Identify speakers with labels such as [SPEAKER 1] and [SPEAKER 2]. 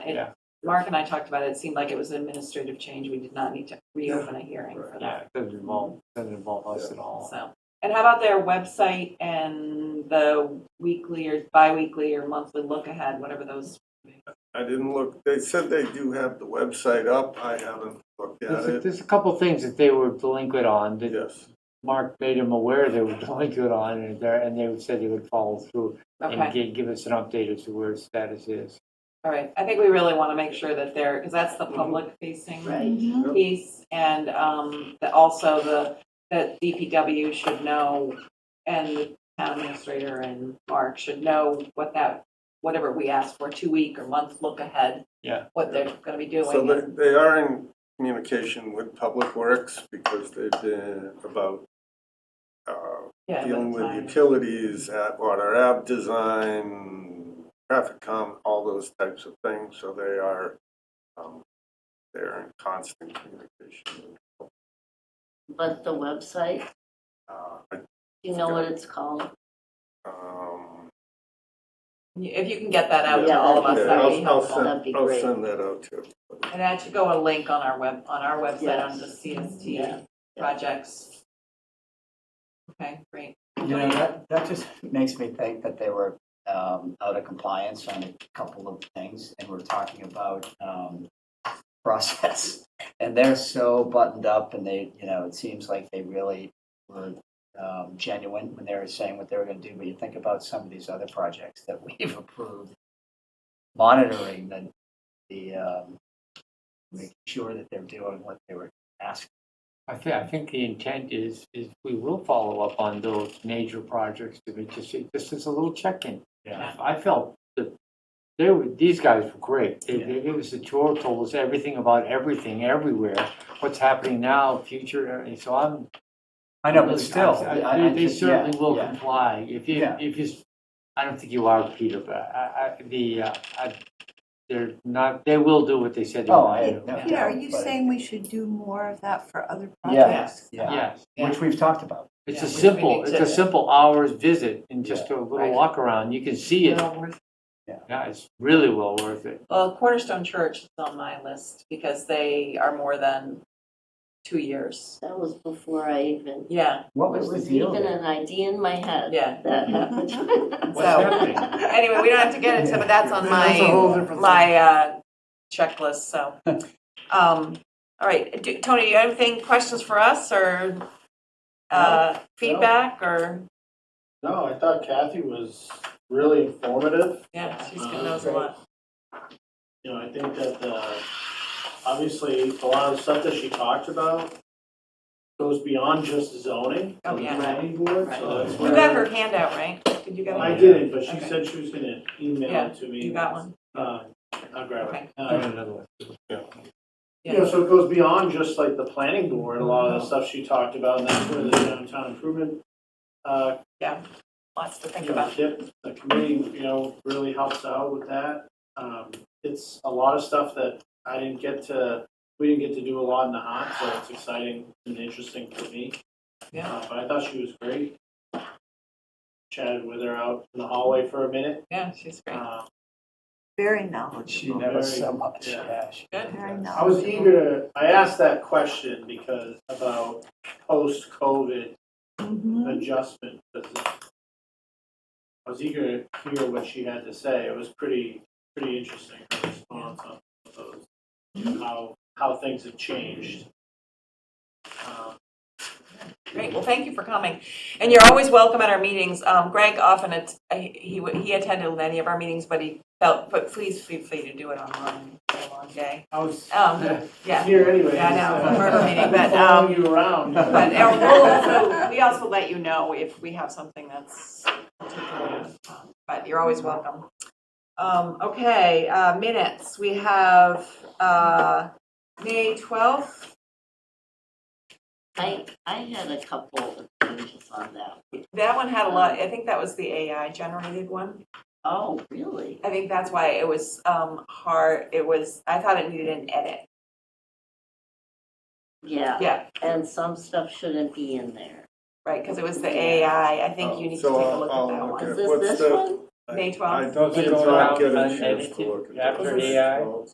[SPEAKER 1] It-
[SPEAKER 2] Yeah.
[SPEAKER 1] Mark and I talked about it, it seemed like it was an administrative change, we did not need to reopen a hearing for
[SPEAKER 2] Yeah,
[SPEAKER 1] that,
[SPEAKER 2] it doesn't involve, doesn't involve us at all.
[SPEAKER 1] so. And how about their website and the weekly or bi-weekly or monthly look ahead, whatever those,
[SPEAKER 3] I didn't look, they said they do have the website up, I haven't looked at
[SPEAKER 4] There's a,
[SPEAKER 3] it,
[SPEAKER 4] there's a couple things that they were delinquent on that
[SPEAKER 3] yes.
[SPEAKER 4] Mark made them aware they were delinquent on and there, and they said they would follow through and
[SPEAKER 1] okay,
[SPEAKER 4] gi- give us an update as to where its status is.
[SPEAKER 1] all right. I think we really want to make sure that they're, because that's the public facing
[SPEAKER 3] Mhm. Yep.
[SPEAKER 1] piece. And um, that also the, that DPW should know and the town administrator and Mark should know what that, whatever we ask for, two week or month look ahead.
[SPEAKER 4] Yeah.
[SPEAKER 1] What they're going to be
[SPEAKER 3] So they,
[SPEAKER 1] doing.
[SPEAKER 3] they are in communication with Public Works because they've been about uh,
[SPEAKER 1] Yeah,
[SPEAKER 3] dealing with
[SPEAKER 1] time.
[SPEAKER 3] utilities, at water app design, traffic com, all those types of things, so they are, um, they're in constant communication.
[SPEAKER 5] But the website,
[SPEAKER 3] Uh, I-
[SPEAKER 5] you know what it's called?
[SPEAKER 3] um,
[SPEAKER 1] If you can get that out to
[SPEAKER 5] Yeah,
[SPEAKER 1] all of us,
[SPEAKER 3] yeah,
[SPEAKER 1] that would be
[SPEAKER 3] I'll- I'll
[SPEAKER 1] helpful.
[SPEAKER 3] send-
[SPEAKER 5] That'd be
[SPEAKER 3] I'll
[SPEAKER 5] great.
[SPEAKER 3] send that out too.
[SPEAKER 1] And that should go a link on our web, on our website, on the
[SPEAKER 5] Yeah.
[SPEAKER 1] CST projects. Okay, great.
[SPEAKER 6] You know, that, that just makes me think that they were um, out of compliance on a couple of things, and we're talking about um, process. And they're so buttoned up, and they, you know, it seems like they really were um, genuine when they were saying what they were going to do. But you think about some of these other projects that we've approved, monitoring the, the um, making sure that they're doing what they were asked.
[SPEAKER 4] I think, I think the intent is, is we will follow up on those major projects to be, just, just as a little check-in.
[SPEAKER 1] Yeah.
[SPEAKER 4] I felt that they were, these guys were great. They,
[SPEAKER 6] Yeah.
[SPEAKER 4] they gave us a tour, told us everything about everything, everywhere, what's happening now, future, and so I'm,
[SPEAKER 6] I know,
[SPEAKER 4] But
[SPEAKER 6] but
[SPEAKER 4] still,
[SPEAKER 6] still,
[SPEAKER 4] I- they- they certainly will comply. If you,
[SPEAKER 6] Yeah.
[SPEAKER 4] if you, s- I don't think you are, Peter, but I, I, the, uh, I, they're not, they will do what they said they
[SPEAKER 6] Oh, I
[SPEAKER 4] would do.
[SPEAKER 6] had no
[SPEAKER 7] Peter, are
[SPEAKER 6] doubt,
[SPEAKER 7] you
[SPEAKER 6] but-
[SPEAKER 7] saying we should do more of that for other
[SPEAKER 6] Yeah.
[SPEAKER 7] projects?
[SPEAKER 6] Yeah.
[SPEAKER 4] Yes,
[SPEAKER 6] Which we've talked about.
[SPEAKER 4] it's
[SPEAKER 1] Yeah,
[SPEAKER 4] a
[SPEAKER 1] we- we
[SPEAKER 4] simple,
[SPEAKER 1] need
[SPEAKER 4] it's
[SPEAKER 1] to-
[SPEAKER 4] a simple hour's visit and just a little
[SPEAKER 1] Right.
[SPEAKER 4] walk around. You can see it.
[SPEAKER 1] Well, we're-
[SPEAKER 4] Yeah, it's really well worth it.
[SPEAKER 1] Well, Cornerstone Church is on my list because they are more than two years.
[SPEAKER 5] That was before I even,
[SPEAKER 1] Yeah,
[SPEAKER 6] What
[SPEAKER 5] it
[SPEAKER 6] was the
[SPEAKER 5] was
[SPEAKER 6] deal?
[SPEAKER 5] even
[SPEAKER 6] there?
[SPEAKER 5] an idea in my head
[SPEAKER 1] yeah.
[SPEAKER 5] that
[SPEAKER 7] Mm-hmm.
[SPEAKER 5] happened.
[SPEAKER 4] What's happening?
[SPEAKER 1] Anyway, we don't have to get into, but that's on
[SPEAKER 3] That's a whole
[SPEAKER 1] my,
[SPEAKER 3] different thing.
[SPEAKER 1] my uh, checklist, so. Um, all right, Do- Tony, you have anything, questions for us or uh, feedback or,
[SPEAKER 8] No, I thought Kathy was really informative.
[SPEAKER 1] yeah, she's gonna knows a lot.
[SPEAKER 8] You know, I think that, uh, obviously, a lot of stuff that she talked about goes beyond just zoning.
[SPEAKER 1] Oh, yeah.
[SPEAKER 8] The planning board, so that's
[SPEAKER 1] You
[SPEAKER 8] where.
[SPEAKER 1] got her handout, right? Did you get
[SPEAKER 8] Uh, I
[SPEAKER 1] it?
[SPEAKER 8] didn't, but she
[SPEAKER 1] Okay.
[SPEAKER 8] said she was gonna email
[SPEAKER 1] Yeah,
[SPEAKER 8] it to me.
[SPEAKER 1] You got one?
[SPEAKER 8] Uh, I'll grab
[SPEAKER 1] Okay.
[SPEAKER 8] it.
[SPEAKER 4] I have
[SPEAKER 8] Uh,
[SPEAKER 4] another one.
[SPEAKER 8] You know, so it goes beyond just like the planning board, a lot of the stuff she talked about, and that's where the downtown improvement, uh,
[SPEAKER 1] Lots to think
[SPEAKER 8] you know,
[SPEAKER 1] about.
[SPEAKER 8] tip, the committee, you know, really helps out with that. Um, it's a lot of stuff that I didn't get to, we didn't get to do a lot in the hot, so it's exciting and interesting for me.
[SPEAKER 1] Yeah.
[SPEAKER 8] Uh, But I thought she was great. Chatted with her out in the hallway for a minute.
[SPEAKER 1] Yeah, she's great.
[SPEAKER 8] Uh,
[SPEAKER 7] Very
[SPEAKER 6] She
[SPEAKER 7] knowledgeable.
[SPEAKER 6] knows so much,
[SPEAKER 8] Yeah.
[SPEAKER 6] yeah. she
[SPEAKER 1] Good.
[SPEAKER 6] really
[SPEAKER 7] Very
[SPEAKER 6] does.
[SPEAKER 7] knowledgeable.
[SPEAKER 8] I was eager to, I asked that question because about post-COVID Mm-hmm.
[SPEAKER 7] Mhm.
[SPEAKER 8] adjustment. because I was eager to hear what she had to say. It was pretty, pretty interesting, her response on those, you
[SPEAKER 1] Mm-hmm.
[SPEAKER 8] know, how, how things have changed. Um,
[SPEAKER 1] Great, well, thank you for coming. And you're always welcome at our meetings. Um, Greg often, it's- he, he attended any of our meetings, but he felt, but please feel free to do it online, It's a long day.
[SPEAKER 8] I was
[SPEAKER 1] Um, yeah.
[SPEAKER 8] here anyway.
[SPEAKER 1] Yeah, I know,
[SPEAKER 8] just, uh,
[SPEAKER 1] murder meeting, but,
[SPEAKER 8] following
[SPEAKER 1] um,
[SPEAKER 8] you around.
[SPEAKER 1] But uh, we'll also, we also let you know if we have something that's, particular, um, but you're always welcome. Um, okay, uh, minutes, we have, uh, May twelfth,
[SPEAKER 5] I, I had a couple of changes on that.
[SPEAKER 1] that one had a lot, I think that was the AI generated one.
[SPEAKER 5] Oh, really?
[SPEAKER 1] I think that's why it was, um, hard, it was, I thought it needed an edit,
[SPEAKER 5] Yeah,
[SPEAKER 1] yeah,
[SPEAKER 5] and some stuff shouldn't be in there.
[SPEAKER 1] right, because it was the AI, I think you need to
[SPEAKER 3] Oh, So
[SPEAKER 1] take a
[SPEAKER 3] I'll-
[SPEAKER 1] look at
[SPEAKER 3] I'll
[SPEAKER 1] that
[SPEAKER 3] look
[SPEAKER 1] one.
[SPEAKER 3] at
[SPEAKER 5] Is
[SPEAKER 3] What's
[SPEAKER 5] this this
[SPEAKER 3] the-
[SPEAKER 5] one?
[SPEAKER 1] May
[SPEAKER 3] I
[SPEAKER 1] 12th.
[SPEAKER 3] don't think
[SPEAKER 4] It's
[SPEAKER 3] I'll
[SPEAKER 4] around
[SPEAKER 3] get a chance
[SPEAKER 4] unedited
[SPEAKER 3] to look at
[SPEAKER 4] after
[SPEAKER 3] those
[SPEAKER 4] AI.
[SPEAKER 3] results.